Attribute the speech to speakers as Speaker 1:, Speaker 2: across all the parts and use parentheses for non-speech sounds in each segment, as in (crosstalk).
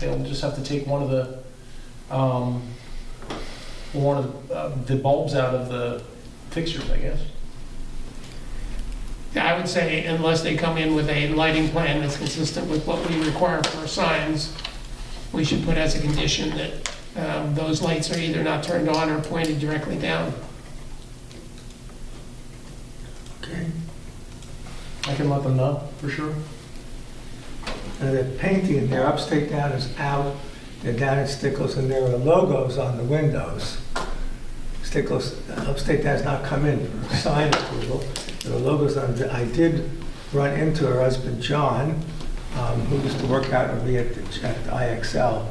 Speaker 1: They'll just have to take one of the, um, one of uh, the bulbs out of the fixtures, I guess.
Speaker 2: Yeah, I would say unless they come in with a lighting plan that's consistent with what we require for signs, we should put as a condition that um, those lights are either not turned on or pointed directly down.
Speaker 3: Okay.
Speaker 1: I can let them know, for sure.
Speaker 3: Now, they're painting it, their upstate down is out, they're down at Stickles, and there are logos on the windows. Stickles, upstate down has not come in for sign approval. There are logos on, the- I did run into her husband, John, um, who used to work out with me at the, at the IXL.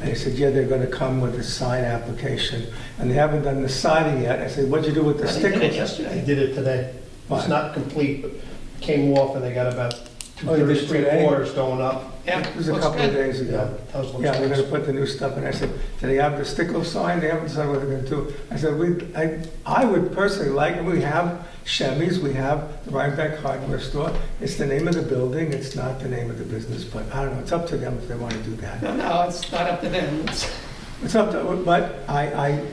Speaker 3: And he said, yeah, they're gonna come with a sign application, and they haven't done the siding yet. I said, what'd you do with the
Speaker 4: They did it
Speaker 3: Stickles?
Speaker 4: yesterday, they did it today. It's
Speaker 3: Fine.
Speaker 4: not complete, but came off and they got about two
Speaker 3: Oh, you
Speaker 4: thirds,
Speaker 3: did
Speaker 4: three
Speaker 3: today?
Speaker 4: quarters going up.
Speaker 2: Yeah,
Speaker 3: It was a
Speaker 2: looks
Speaker 3: couple of
Speaker 2: good.
Speaker 3: days ago.
Speaker 4: Yeah, that was
Speaker 3: Yeah, they're gonna
Speaker 4: looks
Speaker 3: put the new stuff in. I said, do they have the stickle sign? They haven't decided what they're gonna do. I said, we, I, I would personally like, we have Chevy's, we have the Rhinebeck Hardware Store. It's the name of the building, it's not the name of the business, but I don't know, it's up to them if they wanna do that.
Speaker 2: No, no, it's not up to them. It's-
Speaker 3: It's up to, but I, I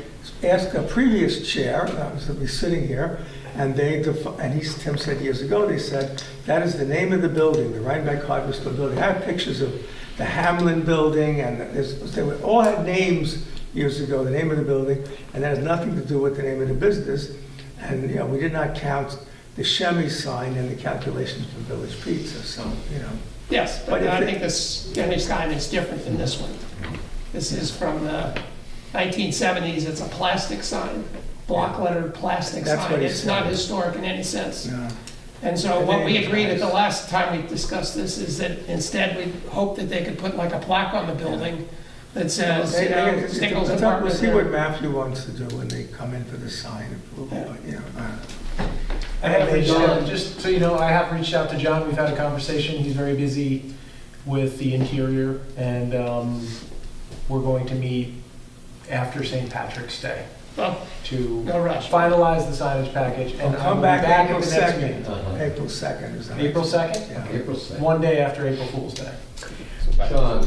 Speaker 3: asked a previous chair, uh, that was, that was sitting here, and they, defi- and he, Tim said years ago, they said, that is the name of the building, the Rhinebeck Hardware Store building. I have pictures of the Hamlin Building, and there's, they were, all had names years ago, the name of the building, and that has nothing to do with the name of the business. And, you know, we did not count the Shemmy sign in the calculations for Village Pizza, so, you know.
Speaker 2: Yes,
Speaker 3: But
Speaker 2: but
Speaker 3: if
Speaker 2: I
Speaker 3: they-
Speaker 2: think this Spanish sign is different than this one. This is from the 1970s. It's a plastic sign, block lettered plastic
Speaker 3: That's what
Speaker 2: sign.
Speaker 3: he
Speaker 2: It's not
Speaker 3: said.
Speaker 2: historic in any sense.
Speaker 3: yeah.
Speaker 2: And so what we agreed at the last time we discussed this is that instead we hope that they could put like a plaque on the building that says,
Speaker 3: Hey,
Speaker 2: you
Speaker 3: hey,
Speaker 2: know,
Speaker 3: it's-
Speaker 2: Stickles
Speaker 3: it's up- We'll
Speaker 2: Apartment.
Speaker 3: see what Matthew wants to do when they come in for the sign approval, but, you know. uh,
Speaker 1: I
Speaker 3: and
Speaker 1: have
Speaker 3: they
Speaker 1: reached out,
Speaker 3: don't-
Speaker 1: just so you know, I have reached out to John, we've had a conversation, he's very busy with the interior, and um, we're going to meet after St. Patrick's Day
Speaker 2: Well,
Speaker 1: to
Speaker 2: No rush.
Speaker 1: finalize the signage package, and
Speaker 3: Well,
Speaker 1: I'll
Speaker 3: come
Speaker 1: be
Speaker 3: back
Speaker 1: back at
Speaker 3: April
Speaker 1: the next
Speaker 3: 2nd.
Speaker 1: meeting.
Speaker 3: April 2nd is that?
Speaker 1: April 2nd?
Speaker 3: Yeah.
Speaker 5: April 2nd.
Speaker 1: One day after April Fool's Day.
Speaker 5: John,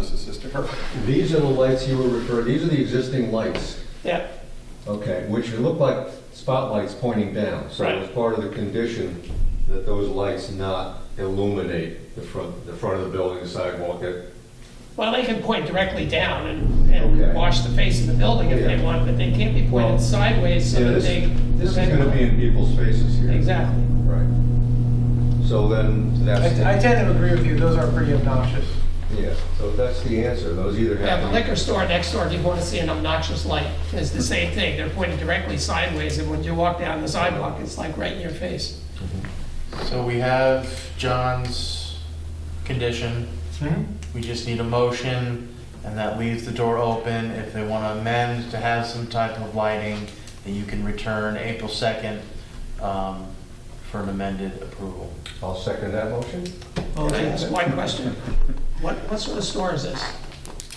Speaker 1: Perfect.
Speaker 5: these are the lights you were referring, these are the existing lights,
Speaker 2: yeah,
Speaker 5: okay, which look like spotlights pointing down. So
Speaker 2: Right.
Speaker 5: it's part of the condition that those lights not illuminate the front, the front of the building, the sidewalk, that-
Speaker 2: well, they can point directly down and, and
Speaker 5: Okay.
Speaker 2: wash the face of the building if they
Speaker 5: Yeah.
Speaker 2: want, but they can't be pointed
Speaker 5: Well,
Speaker 2: sideways so
Speaker 5: Yeah,
Speaker 2: that
Speaker 5: this,
Speaker 2: they.
Speaker 5: this is gonna be in people's faces here.
Speaker 2: Exactly.
Speaker 5: Right. So then,
Speaker 1: I
Speaker 5: that's,
Speaker 1: I
Speaker 5: the-
Speaker 1: tend to agree with you, those are pretty obnoxious.
Speaker 5: yeah, so that's the answer, those either
Speaker 2: Yeah,
Speaker 5: have.
Speaker 2: the
Speaker 5: to be-
Speaker 2: liquor store next door, if you want to see an obnoxious light, is the same thing. They're pointed directly sideways and when you walk down the sidewalk, it's like right in your face.
Speaker 6: So we have John's condition.
Speaker 3: Hmm?
Speaker 6: We just need a motion, and that leaves the door open if they want to amend to have some type of lighting, that you can return April 2nd um, for an amended approval.
Speaker 5: I'll second that motion.
Speaker 2: Can I ask one question? What, what sort of store is this?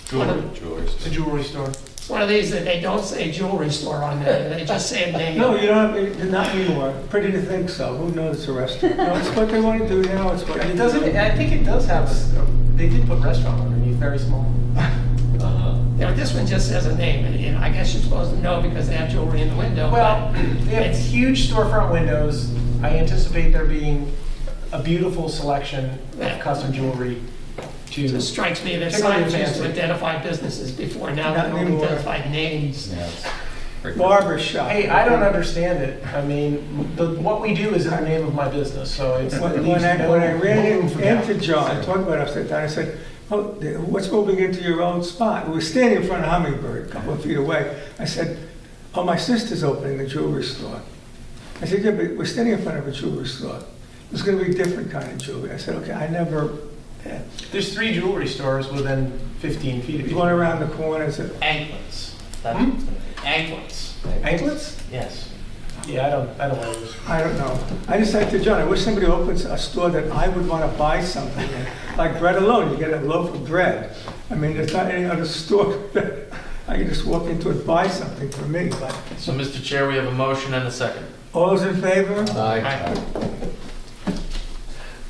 Speaker 2: Jewelry.
Speaker 1: It's a jewelry store.
Speaker 2: It's one of these that they don't say jewelry store on there, they just say a name.
Speaker 3: No, you don't, have- not anymore. Pretty to think so. Who knows, it's a restaurant. No, it's what they want to do now, it's what.
Speaker 1: It doesn't, I think it does have, a- they did put restaurant underneath, very small.
Speaker 2: Now, this one just says a name, and- and I guess you're supposed to know because they have jewelry in the window,
Speaker 1: Well,
Speaker 2: but
Speaker 1: they have
Speaker 2: it's,
Speaker 1: huge storefront windows. I anticipate there being a beautiful selection of custom jewelry
Speaker 2: it
Speaker 1: to.
Speaker 2: just strikes me that
Speaker 1: Particularly
Speaker 2: signs used to
Speaker 1: fancy.
Speaker 2: identify businesses before, now
Speaker 3: Not
Speaker 2: they only
Speaker 3: anymore.
Speaker 2: identify names.
Speaker 3: Barber shop.
Speaker 1: Hey, I don't understand it. I mean, the, what we do is in the name of my business, so it's. it
Speaker 3: When
Speaker 1: leaves
Speaker 3: when I,
Speaker 1: no
Speaker 3: when I ran
Speaker 1: room for
Speaker 3: in-
Speaker 1: doubt.
Speaker 3: into John, talking about upside down, I said, oh, the- what's moving into your own spot? We were standing in front of Hummingbird, a couple of feet away. I said, oh, my sister's opening a jewelry store. I said, yeah, but we're standing in front of a jewelry store. It's gonna be a different kind of jewelry. I said, okay, I never, eh,
Speaker 1: There's three jewelry stores within 15 feet of
Speaker 3: there's
Speaker 1: each
Speaker 3: one
Speaker 1: other.
Speaker 3: around the corner, I said,
Speaker 6: Anklets. That's
Speaker 1: Hmm?
Speaker 6: what it's gonna be. Anklets,
Speaker 1: Anklets?
Speaker 6: yes.
Speaker 1: Yeah, I don't, I don't know those.
Speaker 3: I don't know. I just said to John, I wish somebody opens a store that I would want to buy something in. Like bread alone, you get a loaf of bread. I mean, there's not any other (laughs) store that I can just walk into and buy something for me, but
Speaker 6: So, Mr. Chair, we have a motion and a second.
Speaker 3: all those in favor?
Speaker 5: Aye.
Speaker 6: Aye.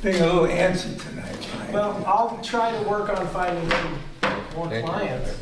Speaker 3: Being a little antsy tonight, right?
Speaker 1: Well, I'll try to work on finding poor
Speaker 5: Thank you.
Speaker 1: clients.